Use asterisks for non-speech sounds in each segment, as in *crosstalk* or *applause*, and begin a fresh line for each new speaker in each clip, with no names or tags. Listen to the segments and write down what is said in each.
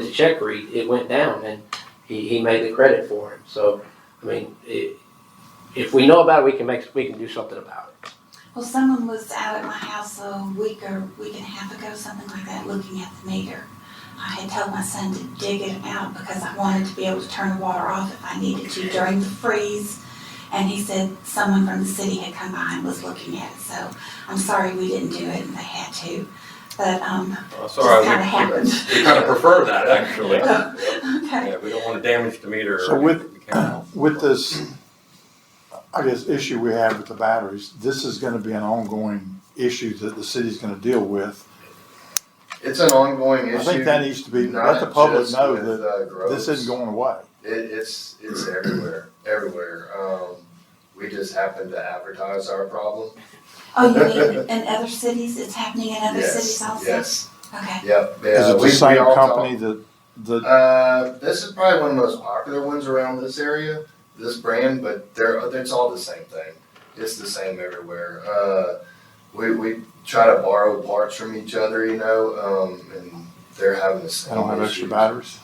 the check read, it went down and he, he made the credit for him. So, I mean, it, if we know about it, we can make, we can do something about it.
Well, someone was out at my house a week or week and a half ago, something like that, looking at the meter. I had told my son to dig it out because I wanted to be able to turn the water off if I needed to during the freeze. And he said someone from the city had come by and was looking at it, so I'm sorry we didn't do it and they had to. But, um,
Well,
it just
Uh, Sorry,
kinda
we
happened.
we kind of prefer that, actually. Yeah,
*laughs* Okay,
we don't want to damage the meter.
So
or
with-
the camera.
*clears throat* With this, I guess, issue we have with the batteries, this is gonna be an ongoing issue that the city's gonna deal with.
It's an ongoing issue.
I think that needs to be,
not
let the public
just
know
with,
that
uh,
this
groves.
isn't going away.
It, it's, it's everywhere, everywhere. Um, we just happen to advertise our problem.
oh, you mean in other cities, it's happening in other
Yes,
cities also?
Yes,
Okay,
yep.
Is
yeah,
it
we- we
the same
all talk-
company that, that,
Uh, this is probably one of the most popular ones around this area, this brand, but they're, it's all the same thing. It's the same everywhere. Uh, we, we try to borrow parts from each other, you know, um, and they're having the
I
same
don't have extra
issues.
batteries?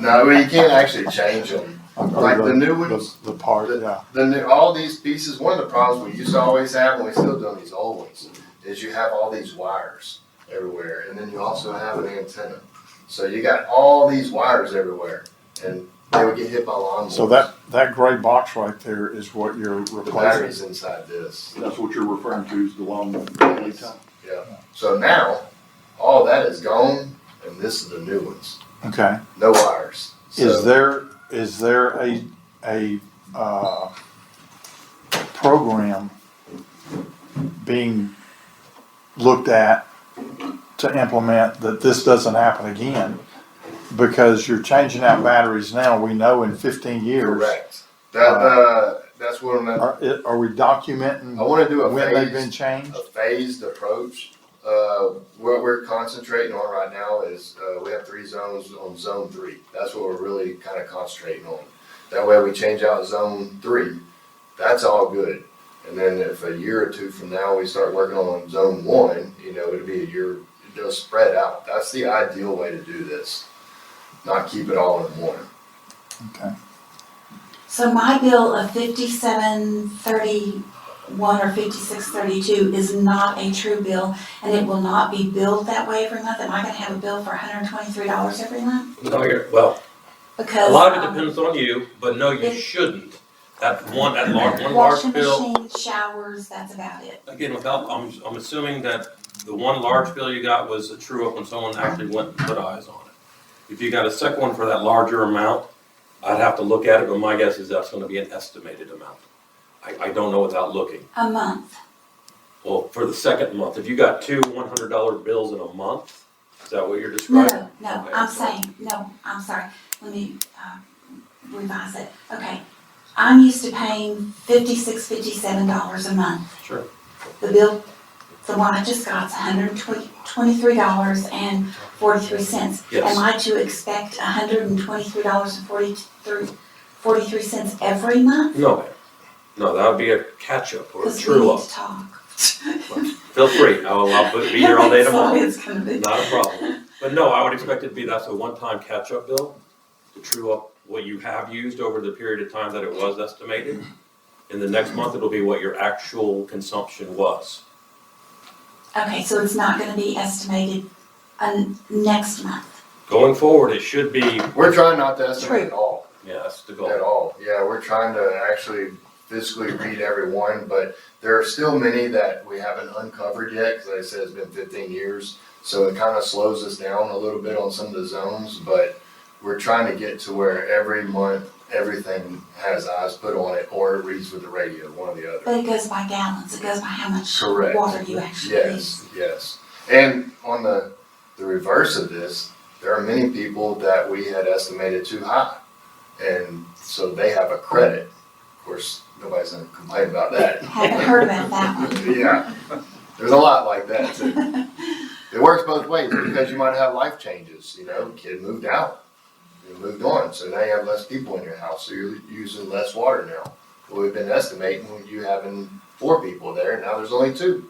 No, well, you
*laughs*
can't actually change them. Like the new ones?
The the part, yeah.
Then there- all these pieces, one of the problems we used to always have, and we still do on these old ones, is you have all these wires everywhere, and then you also have an antenna. So you got all these wires everywhere, and they would get hit by lawnmowers.
So that, that gray box right there is what you're
The
replacing.
batteries inside this.
That's what you're referring to is the long lead time?
So now, all that is gone, and this is the new ones.
Okay.
No wires.
Is
So-
there, is there a, a, uh, program being looked at to implement that this doesn't happen again? Because you're changing out batteries now, we know in fifteen years.
Correct. That, uh, that's what I'm, I
Are, it- are we documenting
wanna do a
when they've
phased-
been changed?
a phased approach. Uh, what we're concentrating on right now is, uh, we have three zones on zone three. That's what we're really kind of concentrating on. That way we change out zone three. That's all good. And then if a year or two from now, we start working on zone one, you know, it'll be a year, it'll spread out. That's the ideal way to do this. Not keep it all in one.
Okay.
so my bill of fifty-seven thirty-one or fifty-six thirty-two is not a true bill, and it will not be billed that way every month, am I gonna have a bill for hundred and twenty-three dollars every month?
No, you're- Well, a
Because.
lot of it
um,
depends on you, but no, you
It-
shouldn't. That one, that large, one
Washing
large bill,
machine, showers, that's about it.
again, without, I'm, I'm assuming that the one large bill you got was a true up when someone actually went and put eyes on it. If you got a second one for that larger amount, I'd have to look at it, but my guess is that's gonna be an estimated amount. I, I don't know without looking.
A month,
Well, for the second month, if you got two one hundred dollar bills in a month, is that what you're describing?
no, no, I'm saying, no, I'm sorry, let me, uh, revise it, okay. I'm used to paying fifty-six, fifty-seven dollars a month.
Sure.
The bill, the one I just got's a hundred and twenty, twenty-three dollars and forty-three cents.
Yes.
Am I to expect a hundred and twenty-three dollars and forty-three, forty-three cents every month?
No, ma'am. no, that would be a catch up or a
Because we
true
need
up.
to talk.
Feel free, I'll, I'll put- be here all
*laughs*
day
That's all
tomorrow,
it's gonna be.
not a problem. But no, I would expect it to be, that's a one-time catch-up bill, to true up what you have used over the period of time that it was estimated. In the next month, it'll be what your actual consumption was.
Okay, so it's not gonna be estimated, um, next month?
Going forward, it should be,
We're trying not to estimate at all.
yeah, that's the goal.
At all, yeah, we're trying to actually physically read every one, but there are still many that we haven't uncovered yet, cause like I said, it's been fifteen years. So it kinda slows us down a little bit on some of the zones, but we're trying to get to where every month, everything has eyes put on it, or it reads with the radio, one or the other.
But it goes by gallons, it goes by how much
Correct.
water you actually use.
Yes, yes. And on the, the reverse of this, there are many people that we had estimated too high. And so they have a credit. Of course, nobody's gonna complain about that.
Haven't heard about that one.
Yeah, there's a lot like that too. It works both ways because you might have life changes, you know, kid moved out. You moved on, so now you have less people in your house, so you're using less water now. Well, we've been estimating you having four people there, and now there's only two.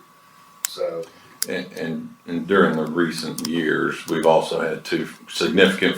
So
And, and, and during the recent years, we've also had two significant